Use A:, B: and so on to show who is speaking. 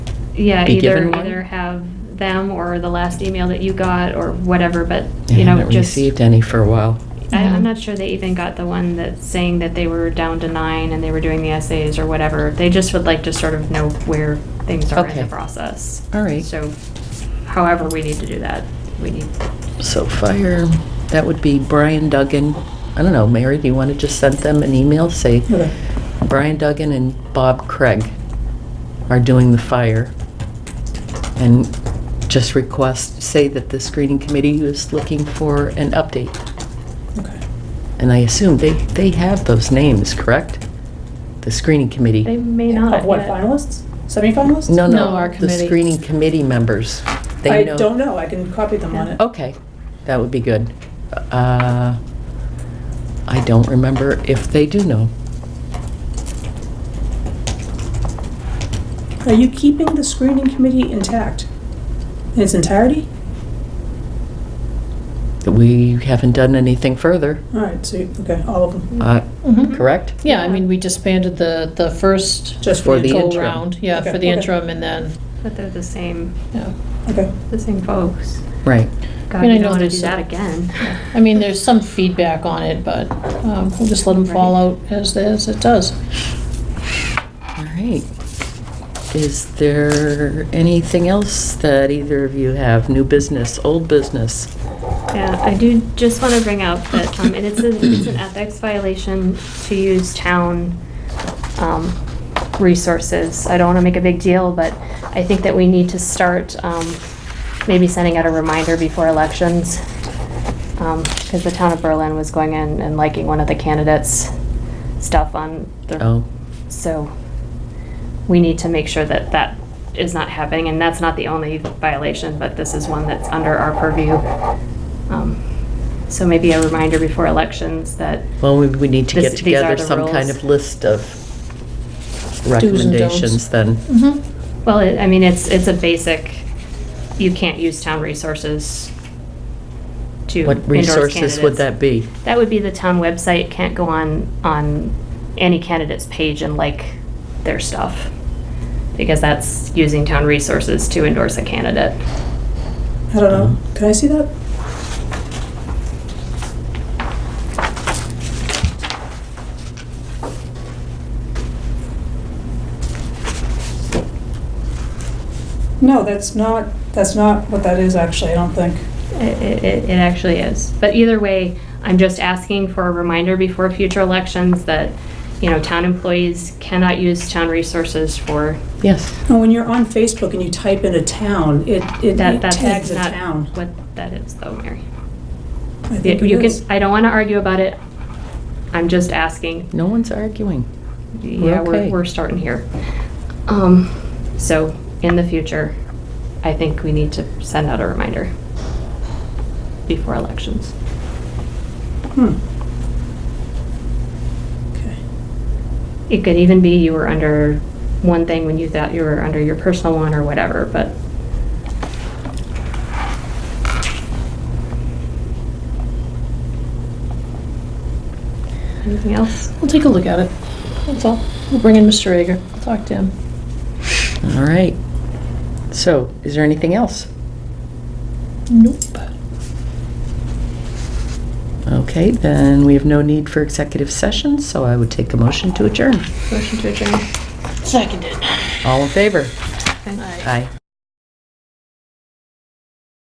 A: yeah,
B: be
A: either,
B: given one?
A: either have them or the last email that you got or whatever, but, you
B: I
A: know,
B: haven't
A: just.
B: received any for a while.
A: I-
C: Yeah.
A: I'm not sure they even got the one that's saying that they were down to nine and they were doing the essays or whatever. They just would like to sort of know where things are in the
B: Okay.
A: process.
B: All right.
A: So however we need to do that, we need,
B: So fire, that would be Brian Duggan. I don't know, Mary, do you want to just send them an email? Say,
D: Okay.
B: Brian Duggan and Bob Craig are doing the fire. And just request, say that the screening committee is looking for an update.
D: Okay.
B: And I assume they, they have those names, correct? The screening committee?
A: they may not.
D: Of what,
A: yet.
D: finalists? Semi-finalists?
B: No,
C: No,
B: no,
C: our
B: the
C: committee.
B: screening committee members. They
D: I don't know, I can copy them on
A: Yeah.
D: it.
B: Okay, that would be good. Uh, I don't remember if they do know.
D: Are you keeping the screening committee intact? In its entirety?
B: We haven't done anything further,
D: All right, so, you- okay, all of them,
B: uh,
C: Mhm.
B: correct?
C: Yeah, I mean, we disbanded the, the first
D: just for
B: For the-
D: the,
B: interim.
C: go-round, yeah,
D: Okay.
C: for the
D: Okay.
C: interim, and then,
A: But they're the same,
C: yeah.
D: okay.
A: the same folks.
B: Right.
A: God,
C: mean, I
A: you
C: know
A: don't want to
C: there's
A: do
C: a-
A: that again.
C: I mean, there's some feedback on it, but um, we'll just let them fall out as, as it does.
B: All right. Is there anything else that either of you have? New business, old business?
A: Yeah, I do just want to bring up that, um, and it's, a- it's an ethics violation to use town, um, resources. I don't want to make a big deal, but I think that we need to start, um, maybe sending out a reminder before elections. Um, because the town of Berlin was going in and liking one of the candidates' stuff on their
B: Oh,
A: so we need to make sure that that is not happening, and that's not the only violation, but this is one that's under our purview. Um, So maybe a reminder before elections that,
B: well, we- we need to
A: This-
B: get
A: these are
B: together
A: the
B: some kind
A: rules.
B: of list of
C: and don'ts.
B: recommendations then.
C: Mhm.
A: well, it- I mean, it's, it's a basic, you can't use town resources to
B: What
A: endorse
B: resources
A: candidates.
B: would that be?
A: That would be the town website, can't go on, on any candidate's page and like their stuff. Because that's using town resources to endorse a candidate.
D: I don't know,
B: Uh-huh.
D: can I see that? No, that's not, that's not what that is actually, I don't think.
A: It, it, it actually is. But either way, I'm just asking for a reminder before future elections that, you know, town employees cannot use town resources for,
B: Yes.
D: And when you're on Facebook and you type in a town, it, it
A: that, that's
D: tags a
A: not
D: town.
A: what that is though, Mary.
D: I think
A: You
D: it
A: can,
D: is.
A: I don't want to argue about it. I'm just asking.
B: No one's arguing.
A: Yeah, we're,
B: okay.
A: we're starting here. Um, so in the future, I think we need to send out a reminder before elections.
D: Hmm. Okay.
A: It could even be you were under one thing when you thought you were under your personal one or whatever, but anything else?
C: We'll take a look at it, that's all. We'll bring in Mr. Ager, talk to him.
B: All right. So, is there anything else?
C: Nope.
B: Okay, then we have no need for executive session, so I would take a motion to adjourn.
A: Motion to adjourn.
C: Seconded.
B: All in favor? Aye.